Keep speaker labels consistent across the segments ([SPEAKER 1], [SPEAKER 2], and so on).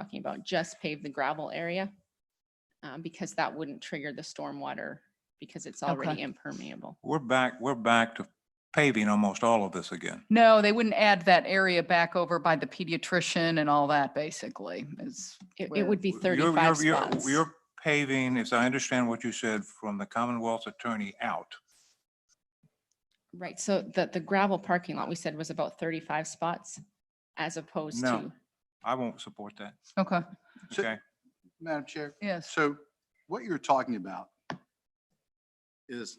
[SPEAKER 1] talking about just pave the gravel area. um, because that wouldn't trigger the stormwater because it's already
[SPEAKER 2] Okay.
[SPEAKER 1] impermeable.
[SPEAKER 3] We're back, we're back to paving almost all of this again.
[SPEAKER 2] No, they wouldn't add that area back over by the pediatrician and all that, basically, is,
[SPEAKER 1] It, it
[SPEAKER 2] Where-
[SPEAKER 1] would be
[SPEAKER 3] You're- you're-
[SPEAKER 1] thirty-five
[SPEAKER 3] you're-
[SPEAKER 1] spots.
[SPEAKER 3] You're paving, as I understand what you said, from the Commonwealth's attorney out.
[SPEAKER 1] Right, so the, the gravel parking lot we said was about thirty-five spots as opposed
[SPEAKER 3] No.
[SPEAKER 1] to,
[SPEAKER 3] I won't support that,
[SPEAKER 2] okay,
[SPEAKER 4] So-
[SPEAKER 3] okay?
[SPEAKER 4] Madam Chair,
[SPEAKER 2] yes.
[SPEAKER 4] so what you're talking about is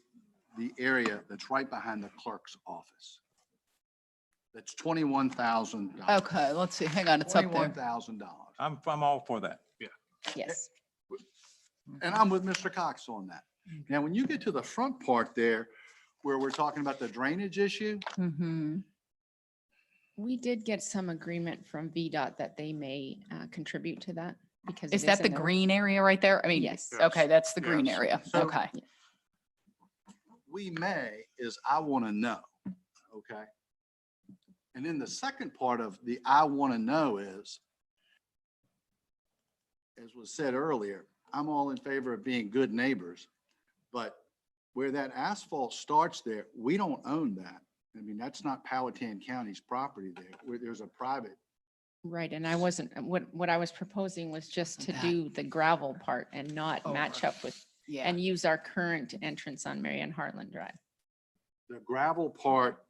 [SPEAKER 4] the area that's right behind the clerk's office. That's twenty-one thousand.
[SPEAKER 2] Okay, let's see, hang on, it's up
[SPEAKER 4] Twenty-one
[SPEAKER 2] there.
[SPEAKER 4] thousand dollars.
[SPEAKER 3] I'm, I'm all for that.
[SPEAKER 1] yes.
[SPEAKER 4] And I'm with Mr. Cox on that.
[SPEAKER 2] Mm-hmm.
[SPEAKER 4] Now, when you get to the front part there, where we're talking about the drainage issue,
[SPEAKER 2] Mm-hmm.
[SPEAKER 1] We did get some agreement from VDOT that they may uh, contribute to that because. it
[SPEAKER 2] Is that
[SPEAKER 1] in
[SPEAKER 2] the
[SPEAKER 1] their-
[SPEAKER 2] green area right there? I mean,
[SPEAKER 1] Yes.
[SPEAKER 2] okay, that's the green
[SPEAKER 4] Yes.
[SPEAKER 2] area,
[SPEAKER 4] So-
[SPEAKER 2] okay.
[SPEAKER 4] we may is I want to know, okay? And then the second part of the I want to know is, as was said earlier, I'm all in favor of being good neighbors, but where that asphalt starts there, we don't own that. I mean, that's not Powhatan County's property there, where there's a private.
[SPEAKER 1] Right, and I wasn't, what, what I was proposing was just to
[SPEAKER 2] That.
[SPEAKER 1] do the gravel part and not
[SPEAKER 2] Oh,
[SPEAKER 1] match
[SPEAKER 2] right.
[SPEAKER 1] up with,
[SPEAKER 2] Yeah.
[SPEAKER 1] and use our current entrance on Marion Hartland Drive.
[SPEAKER 4] the gravel part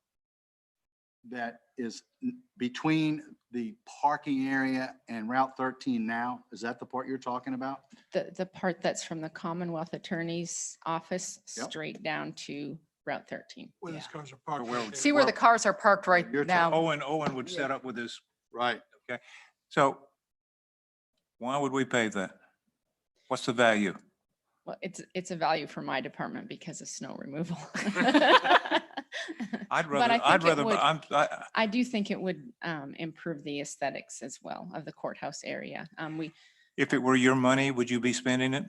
[SPEAKER 4] that is n- between the parking area and Route 13 now, is that the part you're talking about?
[SPEAKER 1] The, the part that's from the Commonwealth Attorney's Office
[SPEAKER 4] Yep.
[SPEAKER 1] straight down to Route thirteen.
[SPEAKER 5] Where these
[SPEAKER 2] Yeah.
[SPEAKER 5] cars are parked.
[SPEAKER 3] where
[SPEAKER 5] right
[SPEAKER 3] would-
[SPEAKER 5] there.
[SPEAKER 2] See where the cars are parked right
[SPEAKER 4] You're oh, ta-
[SPEAKER 1] Um,
[SPEAKER 2] now?
[SPEAKER 3] Owen, Owen would set up with his,
[SPEAKER 4] Right.
[SPEAKER 3] so why would we pave that? What's the value?
[SPEAKER 1] Well, it's, it's a value for my department because of snow removal. But I
[SPEAKER 3] I'd rather, I'd
[SPEAKER 1] think it
[SPEAKER 3] rather,
[SPEAKER 1] would-
[SPEAKER 3] I'm, I,
[SPEAKER 1] I do think it would um, improve the aesthetics as well of the courthouse area. Um, we.
[SPEAKER 3] if it were your money, would you be spending it?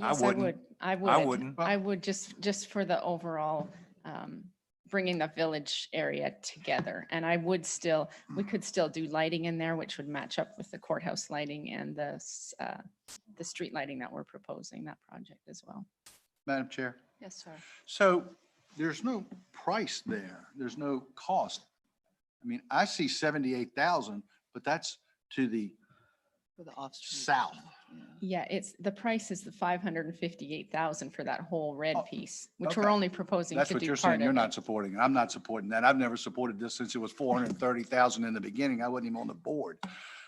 [SPEAKER 3] I
[SPEAKER 1] yes,
[SPEAKER 3] wouldn't.
[SPEAKER 1] would- I would.
[SPEAKER 3] I wouldn't.
[SPEAKER 1] I would just, just for the overall, um, bringing the village area together. And I would still,
[SPEAKER 3] Mm.
[SPEAKER 1] we could still do lighting in there, which would match up with the courthouse lighting and the, s- uh, the street lighting that we're proposing, that project as well.
[SPEAKER 4] Madam Chair.
[SPEAKER 1] Yes, sir.
[SPEAKER 4] So there's no price there. There's no cost. I mean, I see 78,000, but that's to the south.
[SPEAKER 1] Yeah, it's, the price is the five hundred and fifty-eight thousand for that whole red
[SPEAKER 4] Oh,
[SPEAKER 1] piece, which we're
[SPEAKER 4] okay.
[SPEAKER 1] only proposing
[SPEAKER 4] That's
[SPEAKER 1] to
[SPEAKER 4] what
[SPEAKER 1] do
[SPEAKER 4] you're
[SPEAKER 1] part
[SPEAKER 4] saying. You're
[SPEAKER 1] of
[SPEAKER 4] not
[SPEAKER 1] it.
[SPEAKER 4] supporting. it. I'm not supporting that. I've never supported this since it was 430,000 in the beginning. I wasn't even on the board.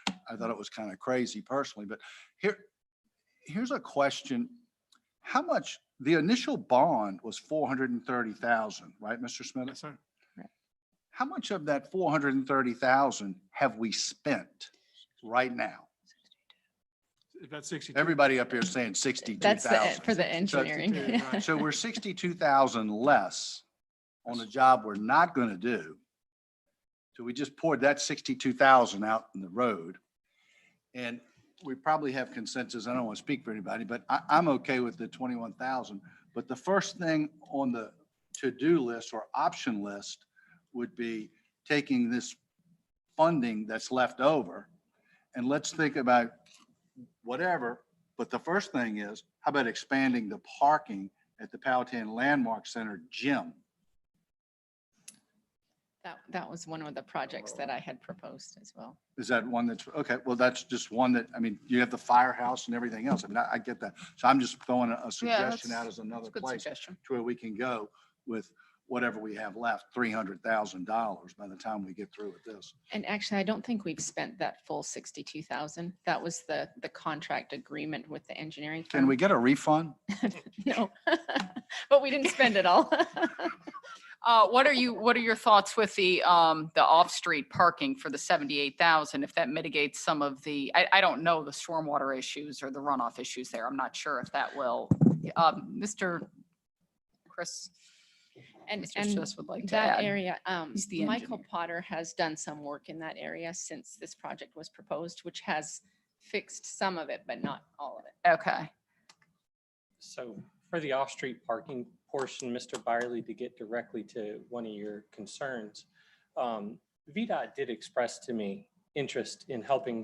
[SPEAKER 4] I thought it was kind of crazy personally, but here, here's a question. How much, the initial bond was 430,000, right, Mr. Smith?
[SPEAKER 5] Yes, sir.
[SPEAKER 4] How much of that 430,000 have we spent right now?
[SPEAKER 5] About sixty.
[SPEAKER 4] Everybody up here is saying
[SPEAKER 1] That's the-
[SPEAKER 4] 62,000.
[SPEAKER 1] for the
[SPEAKER 4] So-
[SPEAKER 1] engineering.
[SPEAKER 5] right.
[SPEAKER 4] So we're sixty-two thousand less on a job we're not gonna do. So we just poured that sixty-two thousand out in the road. And we probably have consensus, I don't want to speak for anybody, but I, I'm okay with the twenty-one thousand. But the first thing on the to-do list or option list would be taking this funding that's left over. And let's think about whatever, but the first thing is, how about expanding the parking at the Powhatan Landmark Center gym?
[SPEAKER 1] That, that was one of the projects that I had proposed as well.
[SPEAKER 4] Is that one that's, okay, well, that's just one that, I mean, you have the firehouse and everything else. I mean, I, I get that. So I'm just throwing a- a suggestion out
[SPEAKER 2] that's-
[SPEAKER 4] as another
[SPEAKER 2] Good
[SPEAKER 4] place
[SPEAKER 2] suggestion.
[SPEAKER 4] to where we can go with whatever we have left, three hundred thousand dollars by the time we get through with this.
[SPEAKER 1] And actually, I don't think we've spent that full sixty-two thousand. That was the, the contract agreement with the engineering.
[SPEAKER 4] Can we get a refund?
[SPEAKER 1] firm. No, but we didn't spend it all.
[SPEAKER 2] Uh, what are you, what are your thoughts with the, um, the off-street parking for the seventy-eight thousand? If that mitigates some of the, I, I don't know the stormwater issues or the runoff issues there. I'm not sure if that will. Um, Mr. Chris,
[SPEAKER 1] And,
[SPEAKER 2] Mr.
[SPEAKER 1] and
[SPEAKER 2] Schiss would like to
[SPEAKER 1] that
[SPEAKER 2] add.
[SPEAKER 1] area, um,
[SPEAKER 2] He's the
[SPEAKER 1] Michael
[SPEAKER 2] engineer.
[SPEAKER 1] Potter has done some work in that area since this project was proposed, which has fixed some of it, but not all of it.
[SPEAKER 2] Okay,
[SPEAKER 6] So for the off-street parking portion, Mr. Byerly, to get directly to one of your concerns, um, VDOT did express to me interest in helping